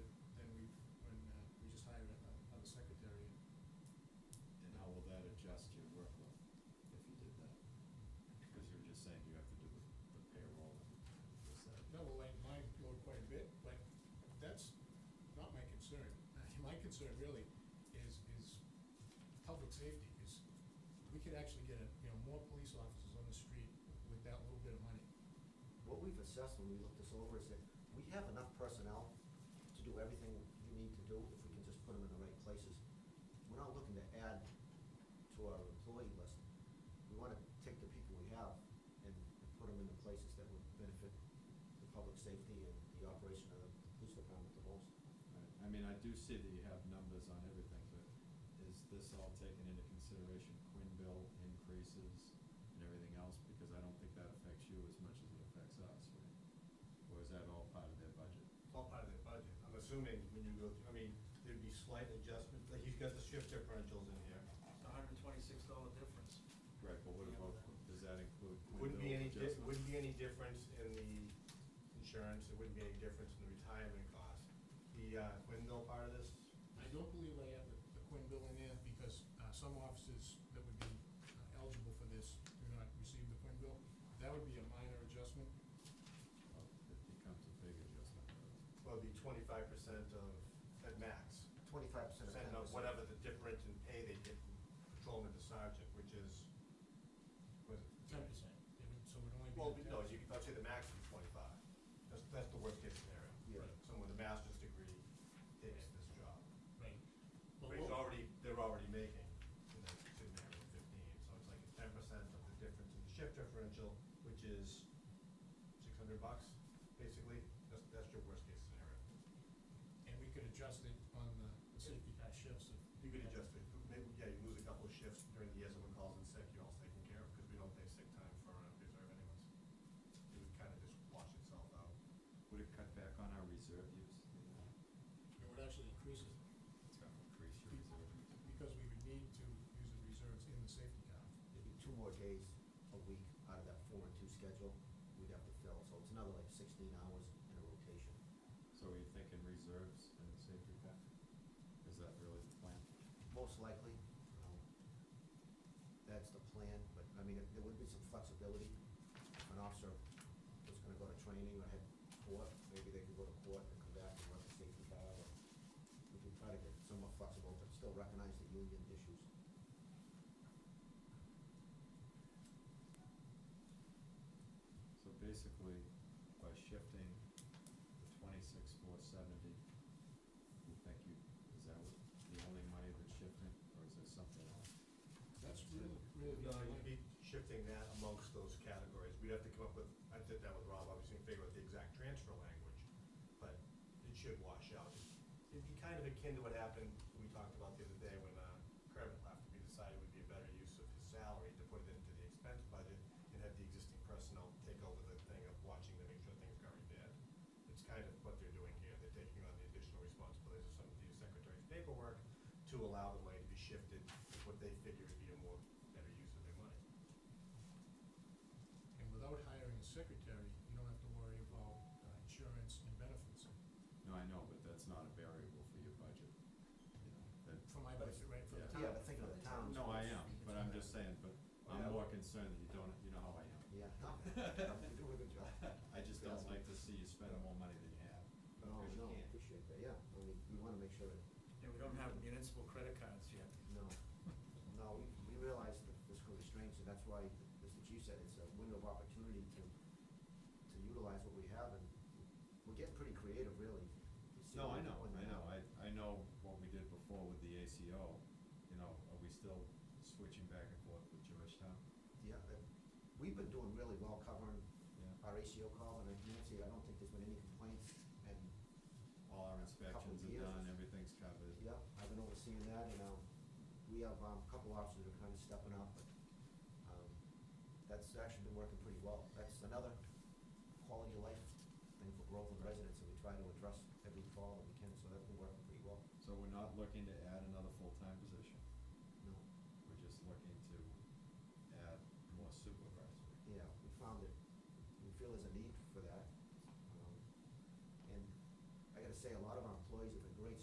uh, concern really is, is public safety, is we could actually get, a you know, more police officers on the street with that little bit of money. What we've assessed when we looked this over is that we have enough personnel to do everything you need to do if we can just put them in the right places. We're not looking to add to our employee list. We want to take the people we have and and put them in the places that would benefit the public safety and the operation of the police department the most. Right. I mean, I do see that you have numbers on everything, but is this all taken into consideration, Quinn bill increases and everything else? Because I don't think that affects you as much as it affects us, right? Or is that all part of their budget? It's all part of their budget. I'm assuming when you go through, I mean, there'd be slight adjustments, like you've got the shift differentials in here. It's a hundred and twenty-six dollar difference. Right, but what about, does that include Quinn Wouldn't be bill any, di- adjustments? wouldn't be any difference in the insurance, there wouldn't be any difference in the retirement cost. The uh, Quinville part of this, I don't believe I have the the Quinn bill in there because uh, some officers that would be uh, eligible for this do not receive the Quinn bill. That would be a minor adjustment. Oh, It becomes a big adjustment. though. well, it'd be twenty-five percent of, at max. Twenty-five percent of uh, ten Percent of whatever the difference in pay they get from patrolman to sergeant, which is, was it? percent. So it would only be. Well, no, you, I'd say the max is twenty-five. That's, that's the worst case scenario. Yeah. Someone with a master's degree takes this job. Right. But it's already, they're already making, you know, sitting there at fifteen, so it's like ten percent of the difference in the shift differential, which is six hundred bucks, basically. That's, that's your worst case scenario. And we could adjust it on the- the safety pass shifts if. You could adjust it, maybe, yeah, you lose a couple of shifts during the year someone calls in sick, you're all taken care of, because we don't pay sick time for uh, reserve anyways. It would kind of just wash itself out. Would it cut back on our reserve use? It would actually increase it It's gonna increase your reserve. because we would need to use the reserves in the safety cap. It'd be two more days a week out of that four and two schedule we'd have to fill, so it's another like sixteen hours in a rotation. So are you thinking reserves and safety cap? Is that really the plan? Most likely, um, that's the plan, but, I mean, there would be some flexibility. If an officer was gonna go to training or had court, maybe they could go to court and come back and run the safety car, or we could try to get somewhat flexible, but still recognize the union issues. So basically, by shifting the twenty-six, four seventy, you think you, is that what, the only money that's shifting, or is there something else? That's really, really. No, you'd be shifting that amongst those categories. We'd have to come up with, I did that with Rob, obviously, and figure out the exact transfer language, but it should wash out. It'd be kind of akin to what happened, we talked about the other day when uh, Kermit left, we decided it would be a better use of his salary to put it into the expense budget and have the existing personnel take over the thing of watching to make sure things got repaired. It's kind of what they're doing here. They're taking on the additional responsibilities of some of the secretary's paperwork to allow the money to be shifted, to what they figure would be a more better use of their money. And without hiring a secretary, you don't have to worry about uh, insurance and benefits. No, I know, but that's not a variable for your budget, you know, that. For my budget, right, for the Yeah. town. Yeah, but think of the town. No, I am, but I'm just saying, but I'm more concerned that you don't, you know how I am. Yeah, no, no, you're doing a good job. I just don't like to see you spend more money than you have. No, because you oh, no, can't. appreciate that, yeah, I mean, we wanna make sure that And we don't have municipal credit cards yet. No, no, we- we realize the fiscal restraints, and that's why, as the chief said, it's a window of opportunity to, to utilize what we have, and we're getting pretty creative, really. You see No, I what we're know, doing I now. know, I, I know what we did before with the ACO, you know, are we still switching back and forth with Georgetown? Yeah, that, we've been doing really well covering Yeah. our ACO calls and our community, I don't think there's been any complaints, and, All our inspections Couple are years. done, everything's covered. yeah, I've been overseeing that, and, um, we have, um, a couple officers that are kind of stepping up, but, um, that's actually been working pretty well, that's another quality of life thing for Groveland residents, that we try to address every fall that we can, so that's been working pretty well, So we're not looking to add another full-time position, no, we're just looking to add more supervisory. yeah, we found that, we feel there's a need for that, um, and I gotta say, a lot of our employees